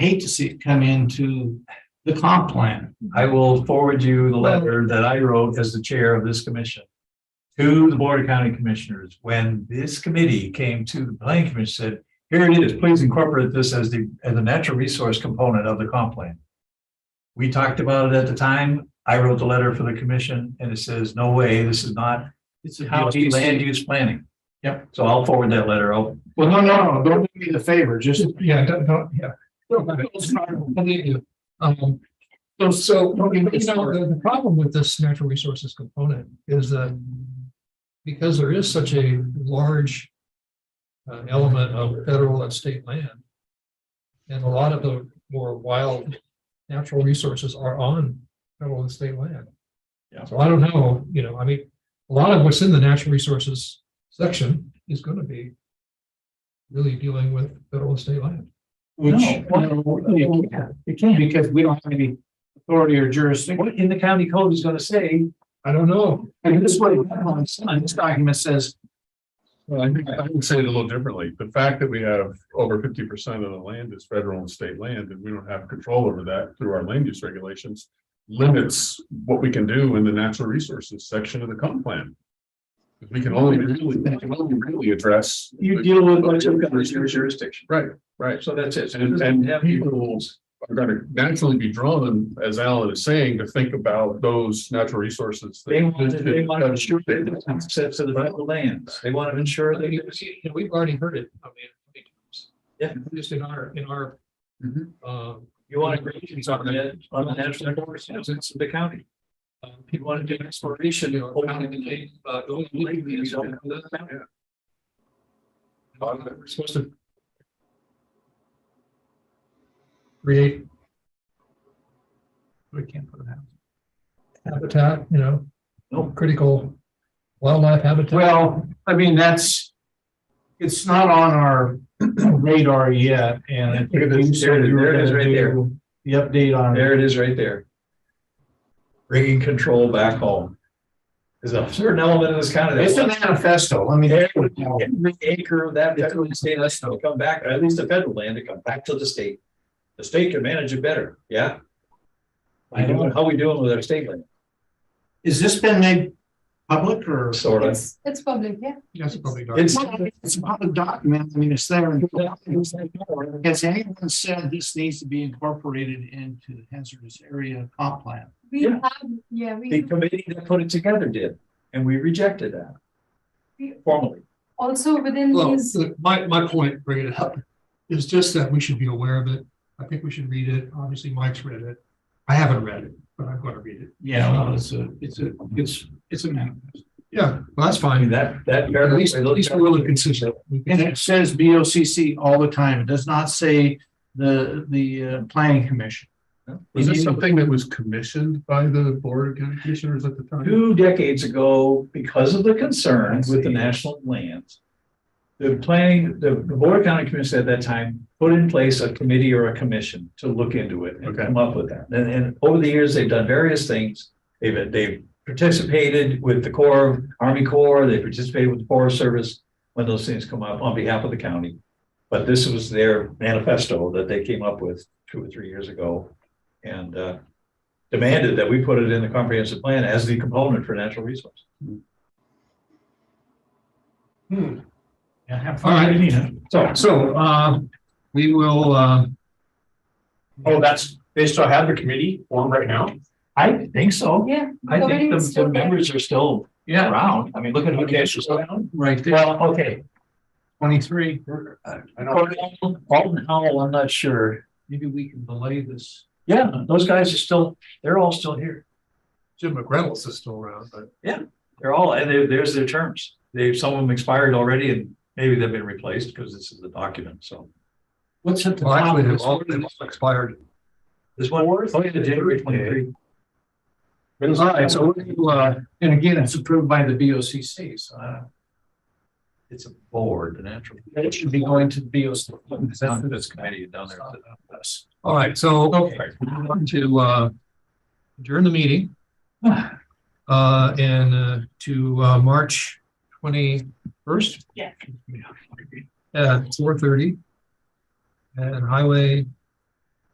hate to see it come into the comp plan. I will forward you the letter that I wrote as the chair of this commission to the Board of County Commissioners. When this committee came to the planning commission, said, here it is, please incorporate this as the, as a natural resource component of the comp plan. We talked about it at the time. I wrote the letter for the commission and it says, no way, this is not It's a county land land. use planning. Yep. So I'll forward that letter. I'll Well, no, no, no, don't do me the favor, just. Yeah, don't, don't, yeah. No, but it's not- I need you. Um, So, so, but you know, It's hard. the, the problem with this natural resources component is that because there is such a large uh, element of federal and state land, and a lot of the more wild natural resources are on federal and state land. Yeah. So I don't know, you know, I mean, a lot of what's in the natural resources section is gonna be really dealing with federal and state land. which, No. no, you can't, you can't, because we don't have any authority or jurisdiction. What in the county code is gonna say, I don't know. And this way, my son, this document says, Well, I think I would say it a little differently. The fact that we have over fifty percent of the land is federal and state land, and we don't have control over that through our land use regulations. Limits what we can do in the natural resources section of the comp plan. We can only really, we can only really address. you deal with. well, it's your jurisdiction. Right, right. So that's it. So it And, doesn't and have- people are gonna naturally be drawn, as Alan is saying, to think about those natural resources. They want to, they want to ensure that there's access to the federal lands. They want to ensure But that you- you know, we've already heard it, I mean, many times. Yeah. Just in our, in our, Mhm. um, you want agreements on the, on the national forest, you know, it's the county. um, You people want to do should, exploration, you you know, know, kind of, uh, don't believe these, uh, We're supposed to create We can't put it out. habitat, you know, Nope. critical wildlife habitat. Well, I mean, that's, it's not on our radar yet, and I think you said you were There it is, gonna right there. do the update on. There it is right there. Bringing control back home. There's a certain element of this county. that It's a wants manifesto, I mean. that's what it's called. Every acre of that, federal and state, that's to come back, or at least the federal land, to come back to the state. The state can manage it better, yeah? I know. How we doing with our state land? Has this been made public or? Sort of. It's, it's public, yeah. That's probably. not- It's- Well, It's a public document, I mean, it's there. and- Has anyone said this needs to be incorporated into the hazardous area comp plan? We Yeah. have, yeah, we The have. committee that put it together did, and we rejected that. Formally. also within Well, these, the- my, my point, bringing it up, is just that we should be aware of it. I think we should read it. Obviously, Mike's read it. I haven't read it, but I'm gonna read it. Yeah, well, it's a, it's a, it's, it's a manifesto. Yeah, well, that's I mean, fine. that, that. At least, at least we're really consistent. We And can- it says B O C C all the time, it does not say the, the uh, planning commission. Was this something that was commissioned by the Board of County Commissioners at the time? Two decades ago, because of the concern with the national lands. The planning, the the Board of County Commission at that time put in place a committee or a commission to look into it and Okay. come up with that. And, and over the years, they've done various things. They've, they've participated with the Corps, Army Corps, they participated with the Forest Service when those things come up on behalf of the county. But this was their manifesto that they came up with two or three years ago and uh, demanded that we put it in the comprehensive plan as the component for natural resource. Yeah, have All right. fun. reading it. So, So, uh, we will, uh, Oh, that's, they still have the committee formed right now? I think so. yeah. I think the, government's still the there. members are still Yeah, around. I mean, look at who Okay, cares. so- right there, Well, okay. twenty-three, I know, Alton Howell, I'm not sure. maybe we can delay this. Yeah, those guys are still, they're all still here. Jim McReynolds is still around, but They're all, and they- there's their terms. They, some of them expired already and maybe they've been replaced because this is the document. So What's at the well, top actually, of they've this? all, they've all expired. there's one. Oh, yeah, January twenty-three. All right, so what do you, uh, And again, it's approved by the B O C C, so I don't- It's a board, the natural. it should be going to B O C. It's down to this committee down there. all right, so Okay. we're going to, uh, adjourn the meeting, uh, and, uh, to, uh, March twenty-first Yeah. at four thirty. And highway